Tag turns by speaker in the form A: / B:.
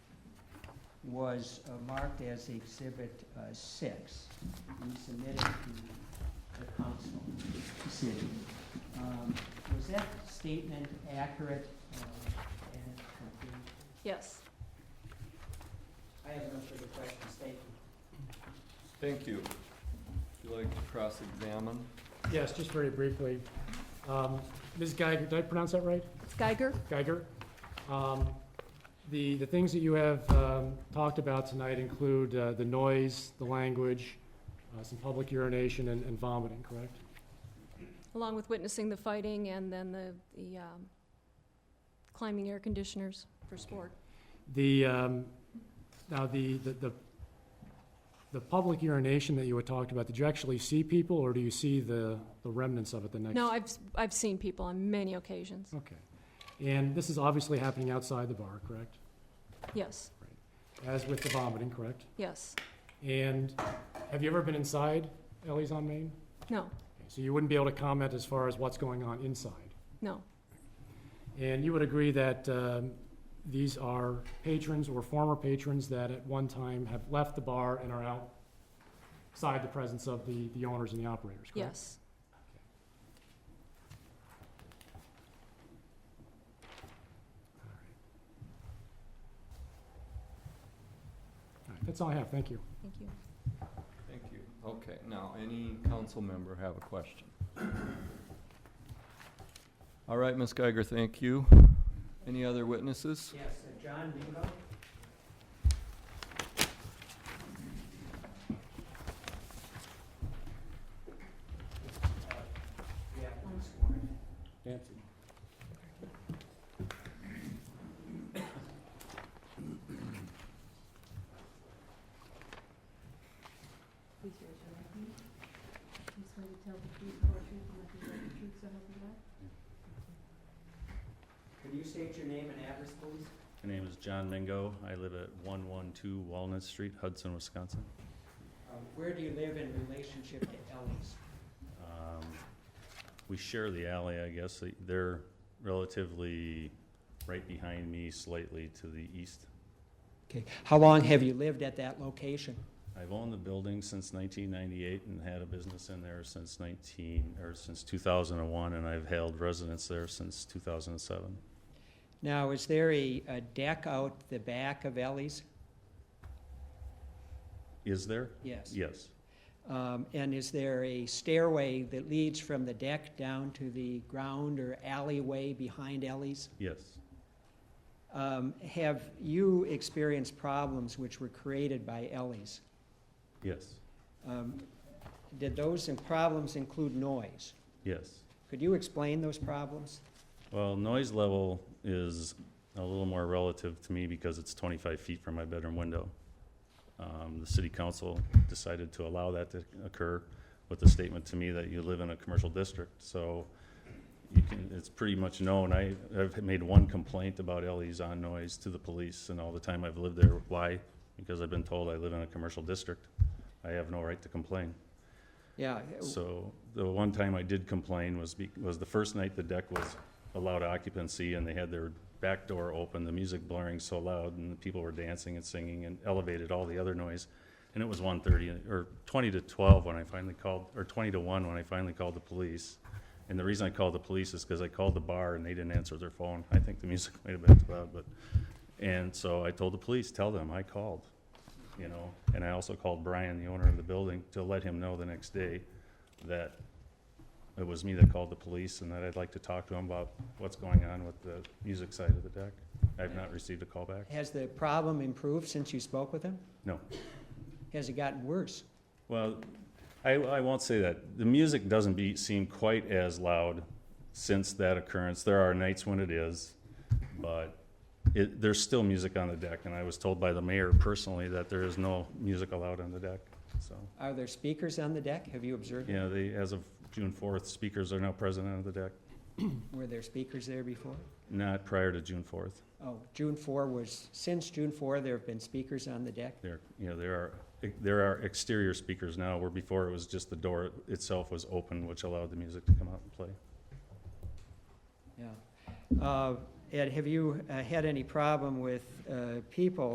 A: was uh, marked as Exhibit uh, 6. We submitted to the council decision. Um, Was that statement accurate uh, and complete?
B: Yes.
A: I have no further questions, thank you.
C: Thank you. Would you like to cross-examine?
D: Yes, just very briefly. Um, Ms. Geiger, did I pronounce that right?
B: Geiger?
D: Geiger? Um, The, the things that you have um, talked about tonight include uh, the noise, the language, uh, some public urination, and and vomiting, correct?
B: Along with witnessing the fighting and then the, the um, climbing air conditioners for sport.
D: The, um, now, the, the- the, the public urination that you had talked about, did you actually see people, or do you see the the remnants of it the next?
B: No, I've, s- I've seen people on many occasions.
D: Okay. And this is obviously happening outside the bar, correct?
B: Yes,
D: As with the vomiting, correct?
B: yes.
D: And have you ever been inside Ellie's on Main?
B: No,
D: Okay, So you wouldn't be able to comment as far as what's going on inside.
B: no,
D: And you would agree that um, these are patrons or former patrons that at one time have left the bar and are outside the presence of the, the owners and the operators, correct?
B: yes.
D: All right. All right, that's all I have, thank you.
B: Thank you.
C: Thank you. Okay, now, any council member have a question? All right, Ms. Geiger, thank you. Any other witnesses?
A: Yes, uh, John Mingo? Yeah, one sworn.
D: Nancy.
E: Please raise your right hand. You swear to tell the truth, the whole truth, and nothing but the truth, so help you God?
A: Can you state your name and address, please?
F: My name is John Mingo. I live at 112 Walnut Street, Hudson, Wisconsin.
A: Uh, Where do you live in relationship to Ellie's?
F: Um, We share the alley, I guess. They're relatively right behind me slightly to the east.
A: Okay, how long have you lived at that location?
F: I've owned the building since 1998 and had a business in there since 19, or since 2001, and I've held residence there since 2007.
A: Now, is there a a deck out the back of Ellie's?
F: Is there?
A: Yes.
F: Yes.
A: Um, And is there a stairway that leads from the deck down to the ground or alleyway behind Ellie's?
F: Yes.
A: Um, Have you experienced problems which were created by Ellie's?
F: Yes.
A: Um, Did those in- problems include noise?
F: Yes.
A: Could you explain those problems?
F: Well, noise level is a little more relative to me because it's 25 feet from my bedroom window. Um, The city council decided to allow that to occur with the statement to me that you live in a commercial district, so you can, it's pretty much known. I, I've made one complaint about Ellie's on noise to the police, and all the time I've lived there. Why? Because I've been told I live in a commercial district. I have no right to complain.
A: Yeah,
F: So the one time I did complain was, be- was the first night the deck was allowed occupancy and they had their back door open, the music blaring so loud and the people were dancing and singing and elevated all the other noise. And it was 1:30 or 20 to 12 when I finally called, or 20 to 1 when I finally called the police. And the reason I called the police is because I called the bar and they didn't answer their phone. I think the music might have been too loud, but, and so I told the police, tell them I called, you know? And I also called Brian, the owner of the building, to let him know the next day that it was me that called the police and that I'd like to talk to him about what's going on with the music side of the deck. I have not received a call back.
A: has the problem improved since you spoke with him?
F: No.
A: Has it gotten worse?
F: Well, I, I won't say that. The music doesn't be, seem quite as loud since that occurrence. There are nights when it is, but it, there's still music on the deck. And I was told by the mayor personally that there is no music allowed on the deck, so.
A: Are there speakers on the deck? Have you observed?
F: Yeah, they, as of June fourth, speakers are now present on the deck,
A: Were there speakers there before?
F: not prior to June fourth.
A: Oh, June 4 was, since June 4, there have been speakers on the deck?
F: There, you know, there are, there are exterior speakers now, where before it was just the door itself was open, which allowed the music to come out and play.
A: Yeah. Uh, Ed, have you uh, had any problem with uh, people